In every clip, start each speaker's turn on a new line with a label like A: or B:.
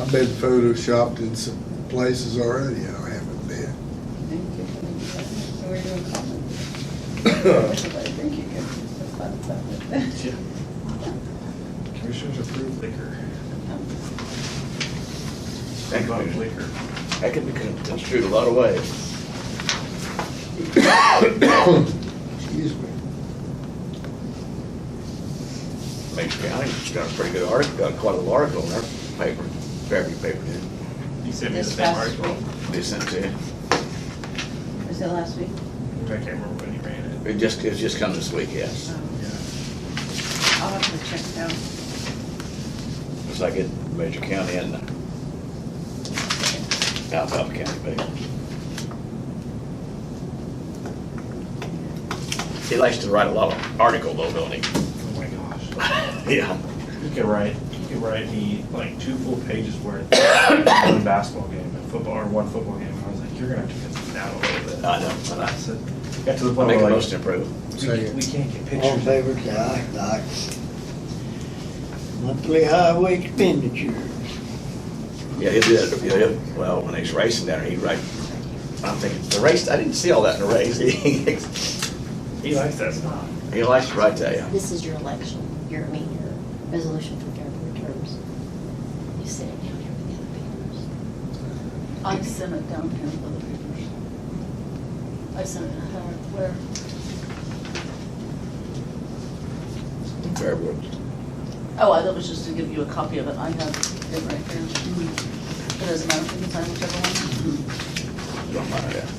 A: I've been photoshopped in some places already I haven't been.
B: Thank you. So we're doing comments. Everybody, Thank you. That's fun stuff.
C: Yeah. Commissioners approve liquor.
D: Thank you.
C: About Liquor.
D: That could be construed a lot of ways.
A: Excuse me.
D: Makes County's got a pretty good article, got quite a lot of article in their paper, Fairview paper did.
C: You sent me the
B: This
C: same
B: past
C: article.
D: They sent it,
B: Was it last week?
C: I can't remember when you ran it.
D: it just, it's just come this week, yes.
B: Um,
C: Yeah.
B: I'll have to check it out.
D: It's like it, Major County and Alphaba County paper. He likes to write a lot of article though, don't he?
C: Oh my gosh.
D: Yeah.
C: You could write, you could write me like two full pages worth of one basketball game and football, or one football game. And I was like, you're gonna have to cut this down a little bit.
D: I know, but
C: I
D: I
C: said, got to the point
D: make a
C: where
D: most
C: like,
D: improved.
C: we can't- we can't get
E: All in
C: pictures.
E: favor, say aye, aye. Monthly highway expenditure.
D: Yeah, he did, yeah, yeah. well, when he's racing down there, he right, I'm thinking, the race, I didn't see all that in the race. He
C: He likes that stuff.
D: likes to write that, yeah.
F: This is your election, your, I mean, your resolution for government terms. You sit it down here with the other papers.
B: I've sent it down here with other papers. I've sent it, uh, where?
D: Fair work.
B: Oh, I- that was just to give you a copy of it. I have it right here. It doesn't matter if you can sign whichever one.
D: Don't mind that.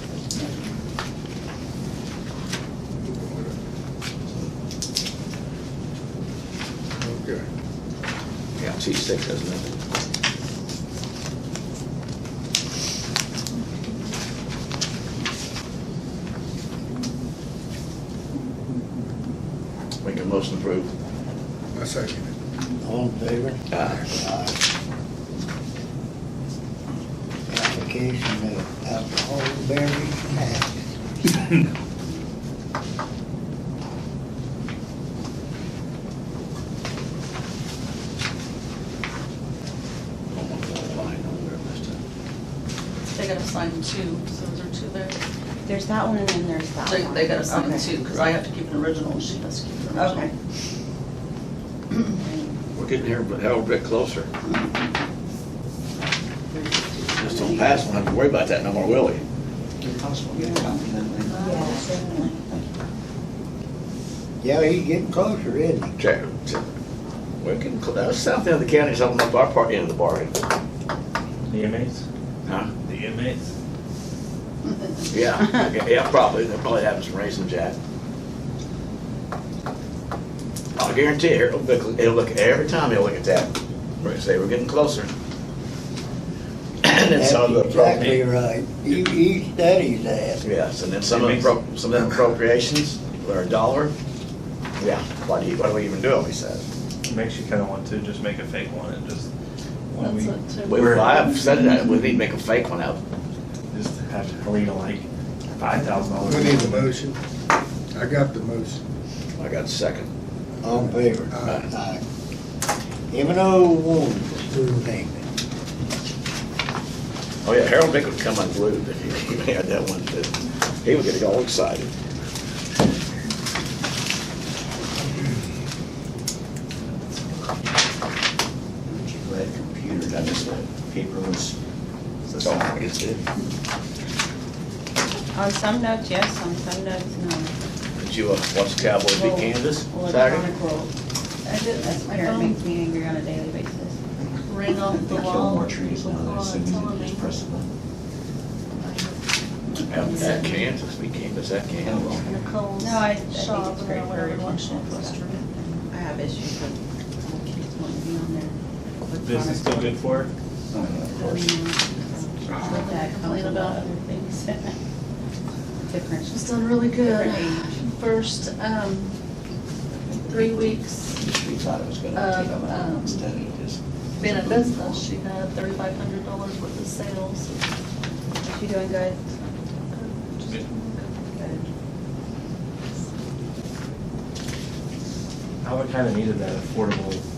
A: Okay.
D: Yeah, T six has nothing. Make a motion approved.
A: I second it.
E: All in favor?
D: Aye.
E: Aye. Application of alcohol beverage tax.
B: They gotta sign two, so there are two there.
F: There's that one and then there's that
B: They,
F: one.
B: they gotta sign
F: Okay.
B: two, because I have to keep an original, and she has to keep an
F: Okay.
B: original.
D: We're getting here, but hell, a bit closer. Just don't pass, we don't have to worry about that no more, will we?
F: Yeah, definitely.
E: Yeah, he's getting closer, isn't he?
D: Check, check. We're getting, cl- uh, south end of the county's opening up our part end of the bargain.
C: The inmates?
D: Huh?
C: The inmates?
D: Yeah, yeah, yeah, probably, they're probably having some raisin jack. I guarantee it, it'll look, it'll look, every time he'll look at that, we're gonna say, we're getting closer. And then some of the,
E: That's
D: appro-
E: Exactly right. He, he studies that.
D: yes, and then some of the, appro- some of the appropriations are a dollar. Yeah, why do you, why do we even do them, he says.
C: It Makes you kinda want to just make a fake one and just, when we,
B: That's it, too.
D: We, I've said that, we need to make a fake one out.
C: just have to read like five thousand dollars.
A: We need a motion. I got the motion.
D: I got a second.
E: All in favor?
A: Aye.
E: Aye. M and O one, sewer payment.
D: Oh, yeah, Harold Vick would come unglued if he had that one, but he would get all excited. Glad computer, got this one, paper was, that's all I guess Oh, it.
F: On Oh, some notes, yes, on some notes, no.
D: Did you uh, watch Cowboys beat Kansas Saturday?
F: Electronic roll.
B: I did,
F: That's
B: that's
F: my
B: my
F: it
B: phone
F: makes me angry on a daily basis.
B: ring off the
G: They kill
B: wall.
G: more trees
B: people
G: now than
B: call
G: as
B: it,
G: soon as
B: telling
G: you
B: me.
G: just press the button.
D: At at Kansas, beat Kansas at Kansas.
G: Oh,
B: Nicole's
F: No, I- I think it's
B: shop,
F: great
B: or
F: for
B: whatever you want,
F: original
B: Northwestern.
F: I have issues with my kids wanting to be on there.
C: This is still good for it?
G: Oh, yeah, of course.
F: That comes
B: Complain
F: with
B: about-
F: other things. Different.
B: She's done really good.
F: Different age.
B: First, um, three weeks
G: We thought it was
B: Uh,
G: gonna take them
B: um,
G: out instead of just.
B: being in business, she had thirty-five hundred dollars worth of sales. Uh,
F: Is she doing good?
C: I would kinda needed that affordable